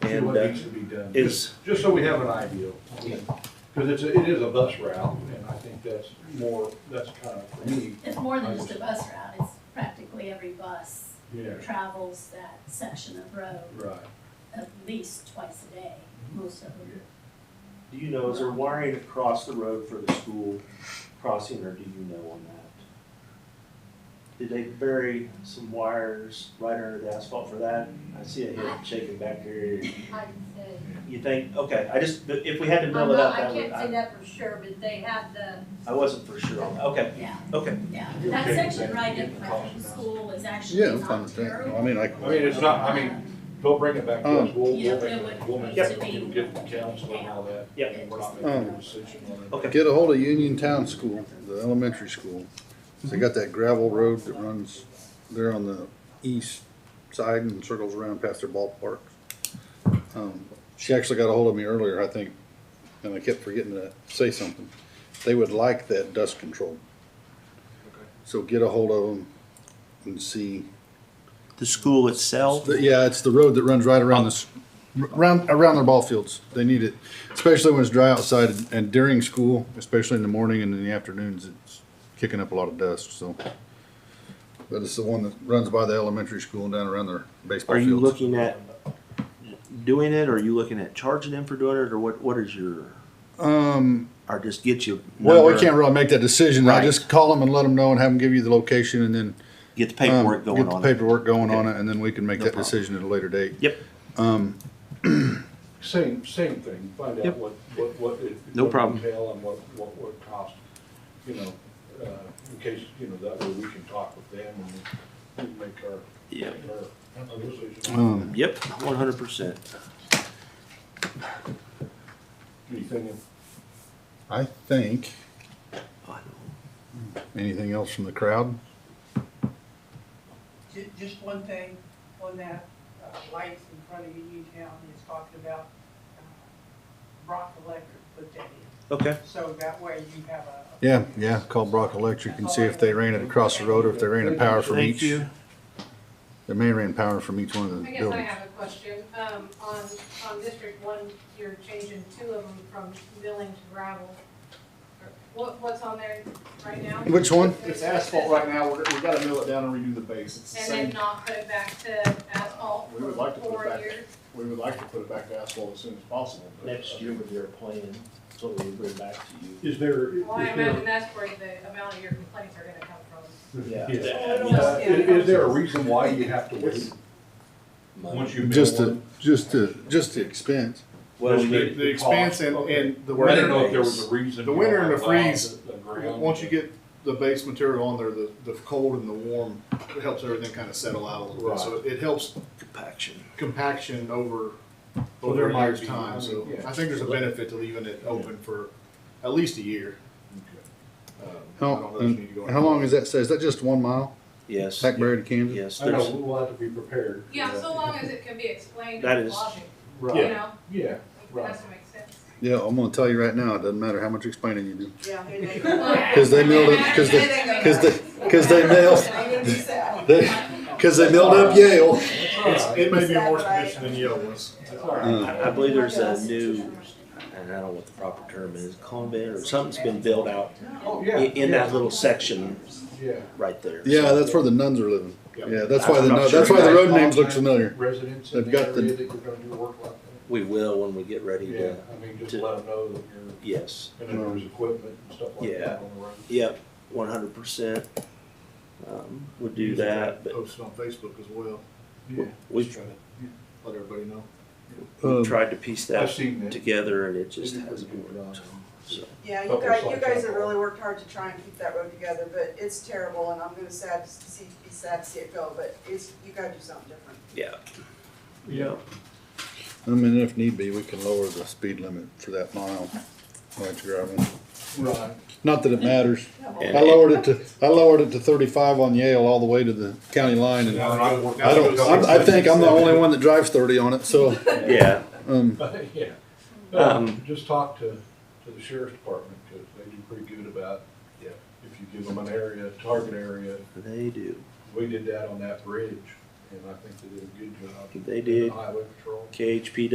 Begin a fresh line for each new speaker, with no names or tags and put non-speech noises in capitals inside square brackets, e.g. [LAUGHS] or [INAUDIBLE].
exactly
And,
what
uh,
needs to be done.
is-
Just so we have an idea. Because it's, a- it is a bus route, and I think that's more, that's kind of, for me,
It's more than just a bus route, it's practically every bus
yeah,
travels that section of road
right.
at least twice a day, most of them.
Do you know, is there wiring across the road for the school crossing, or do you know on that? Did they bury some wires right under the asphalt for that? I see a head shaking back there.
I can say.
You think, okay, I just, but if we had to
I'm
build it
not,
up,
Uh, I
I would,
can't say
I,
that for sure, but they had the,
I wasn't for sure on that, okay,
Yeah,
okay.
yeah, that
Okay,
section
then
right
get
in
the
front of
cost
the
down.
school is actually Um,
Yeah, I'm fine
not
with that.
terrible.
I mean, I,
I mean, it's not, I mean, they'll bring it back
Um,
to us, we'll,
Yeah,
we'll make,
it would
we'll make,
need to
we'll
be-
get the council and all that.
Yeah.
And we're
Oh.
not making
Um,
a decision on it.
Okay.
get a hold of Union Town School, the elementary school. They got that gravel road that runs there on the east side and circles around past their ballpark. Um, She actually got a hold of me earlier, I think, and I kept forgetting to say something. They would like that dust control. So get a hold of them and see.
The school itself?
The- Yeah, it's the road that runs right around this, around, around their ball fields. They need it, especially when it's dry outside and- and during school, especially in the morning and in the afternoons, it's kicking up a lot of dust, so. But it's the one that runs by the elementary school and down around their baseball
Are you
fields.
looking at doing it, or are you looking at charging them for doing it, or what, what is your,
Um,
or just get you?
well, we can't really make that decision. I
Right.
just call them and let them know and have them give you the location and then.
Get the
um,
paperwork going
Get
on
the
it.
paperwork going
Okay.
on it and then we can make
No
that
problem.
decision at a later date.
Yep,
Same, same thing, find out
Yep.
what, what, what. it-
No
what it
problem.
entail and what, what would cost, you know, uh, in case, you know, that way we can talk with them and we can make our,
yep,
our our decision.
Um,
yep, one hundred percent.
Anything,
I think, anything else from the crowd?
Ju- Just one thing on that, uh, lights in front of Uniontown is talking about uh, Brock Electric put that in.
Okay,
So that way you have a.
Yeah, yeah, call Brock Electric and see if they ran it across the road or if they ran a power from each.
thank you.
They may have ran power from each one of the
I guess I
buildings.
have a question. Um, on, on District One, you're changing two of them from milling to gravel. What, what's on there right now?
Which one?
It's asphalt right now, we're, we gotta mill it down and redo the base, it's the
And then
same,
not put it back to asphalt
We would
for
like to put it
four
back.
years?
we would like to put it back to asphalt as soon as possible. but, uh,
Next year with their plan, that's what we bring back to you.
is there?
Well, I imagine that's where the amount of your complaints are gonna come from.
Yeah.
Uh, Is, is there a reason why you have to wait?
It's-
Once you.
Just
build
the, just the, just the expense.
Well,
Just
we
the,
need,
the expense and, and the
one? I
winter.
didn't know if there was a reason.
The winter
you
and the
allowed
freeze,
the- the ground
Once
to-
you get the base material on there, the, the cold and the warm, it helps everything kinda settle out a little bit, so it helps
Compaction.
compaction over,
Well, there
over a
might
year's
be, I
time,
mean,
so
yeah.
I think there's a benefit to leaving it open for at least a year. Um, I
How,
don't know if you need to go
and how long is that, say, is that just one mile,
Yes,
Hackberry to Camden?
yes,
I know,
there's,
we'll have to be prepared. for
Yeah,
that.
so uh, long as it can be explained
That
in
is-
logic, you
Right,
know,
yeah,
it
Right.
has to make sense.
Yeah, I'm gonna tell you right now, it doesn't matter how much explaining you do.
Yeah.
[LAUGHS]
Cause they milled it, cause they, cause they, cause
[LAUGHS]
they milled, they, cause they milled up Yale.
It's, it may be a worse condition than Yale was.
that's all right.
Uh,
I, I believe there's a new, and I don't know what the proper term is, convent or something's been built out
Oh,
i-
yeah.
in that
yeah,
little section
Yeah,
right there.
Yeah,
So-
that's where the nuns are living. Yeah, that's why
I'm
the,
not
nun-
sure.
that's why the road names look familiar.
residents in the
They've got the-
area that you're gonna do work like that.
We will when we get ready
Yeah,
to,
I mean, just
to-
let them know that you're.
yes.
And then there's equipment and stuff like
Yeah.
that on the road.
Yep, one hundred percent. Um, would do that, but
Post it on Facebook as well,
we've
let everybody know.
Um,
tried to piece
I've
that
seen that.
together and it
They
just
do a pretty
hasn't
good
worked.
job.
So,
Yeah, you
Couple
guys, you
slides
guys have
up.
really worked hard to try and keep that road together, but it's terrible, and I'm gonna sad, see, be sad to see it go, but it's, you gotta do something different.
yeah.
Yeah.
I mean, if need be, we can lower the speed limit for that mile, like gravel.
Right.
Not that it matters.
And-
I lowered it to, I lowered it to thirty-five on Yale all the way to the county line and I don't, I'm- I think I'm
[LAUGHS]
the only one that drives thirty on it, so,
Yeah,
um,
Yeah.
Um,
Just talk to, to the sheriff's department, because they do pretty good about,
Yeah.
if you give them an area, target area.
they do.
We did that on that bridge, and I think they did a good job.
They did.
Highway patrol.
KHP